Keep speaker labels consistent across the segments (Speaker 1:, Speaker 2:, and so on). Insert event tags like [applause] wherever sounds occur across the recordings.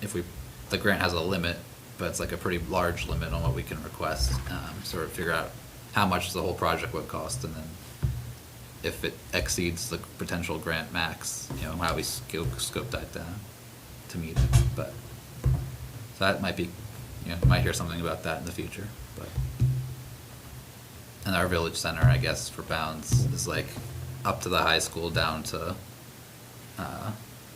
Speaker 1: if we, the grant has a limit, but it's like a pretty large limit on what we can request. Um, sort of figure out how much the whole project would cost and then if it exceeds the potential grant max, you know, how we scope, scope that down to meet it, but. So that might be, you know, might hear something about that in the future, but. And our village center, I guess, for bounds is like up to the high school, down to, uh,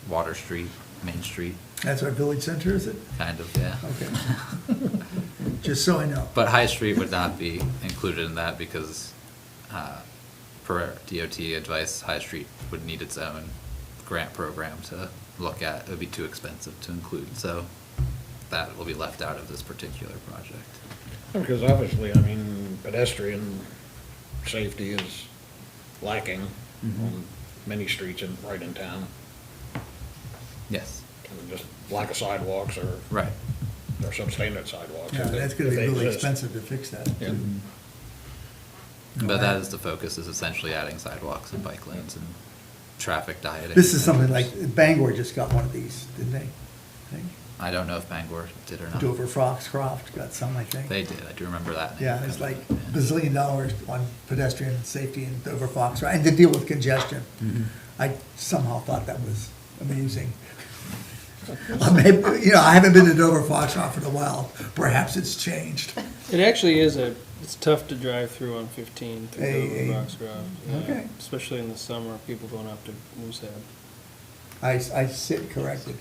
Speaker 1: Water Street, Main Street,
Speaker 2: That's our village center, is it?
Speaker 1: kind of, yeah. [laughs]
Speaker 2: Okay. Just so I know.
Speaker 1: But High Street would not be included in that because, uh, per DOT advice, High Street would need its own grant program to look at. It would be too expensive to include, so that will be left out of this particular project.
Speaker 3: Because obviously, I mean, pedestrian safety is lacking on many streets in, right in town.
Speaker 1: Yes,
Speaker 3: And Just lack of sidewalks or,
Speaker 1: right.
Speaker 3: or substandard sidewalks.
Speaker 2: Yeah,
Speaker 3: if they-
Speaker 2: that's gonna
Speaker 3: if
Speaker 2: be
Speaker 3: they
Speaker 2: really
Speaker 3: exist.
Speaker 2: expensive to fix that.
Speaker 3: Yeah.
Speaker 1: Mm-hmm. But that is the focus, is essentially adding sidewalks and bike lanes and traffic dieting.
Speaker 2: This is something like, Bangor just got one of these, didn't they? I think
Speaker 1: I don't know if Bangor did or not.
Speaker 2: Dover Foxcroft got some, I think.
Speaker 1: They did, I do remember that.
Speaker 2: Yeah, it's like
Speaker 1: Yeah.
Speaker 2: bazillion dollars on pedestrian safety in Dover Fox, right, and to deal with congestion.
Speaker 1: Mm-hmm.
Speaker 2: I somehow thought that was amusing. [laughs] I may- You know, I haven't been to Dover Foxcroft in a while, perhaps it's changed.
Speaker 4: It actually is a, it's tough to drive through on 15 through
Speaker 2: Hey, hey.
Speaker 4: the Rocks Grove. yeah.
Speaker 2: Okay.
Speaker 4: Especially in the summer, people going up to Moosehead.
Speaker 2: I, I sit corrected.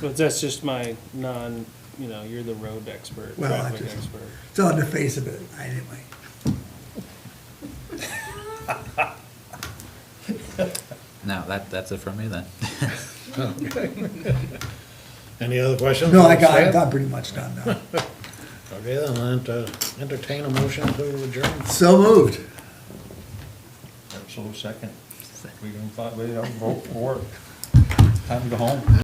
Speaker 4: But that's just my non, you know, you're the road expert,
Speaker 2: Well, I
Speaker 4: traffic
Speaker 2: just,
Speaker 4: expert.
Speaker 2: it's on the face of it, anyway.
Speaker 1: No, that, that's it from me then.
Speaker 3: Any other questions?
Speaker 2: No, I got, I got pretty much done now.
Speaker 3: Okay, then I'll ent- entertain a motion to adjourn.
Speaker 2: So moved.
Speaker 5: So second, we can find, we don't vote for it. Time to go home.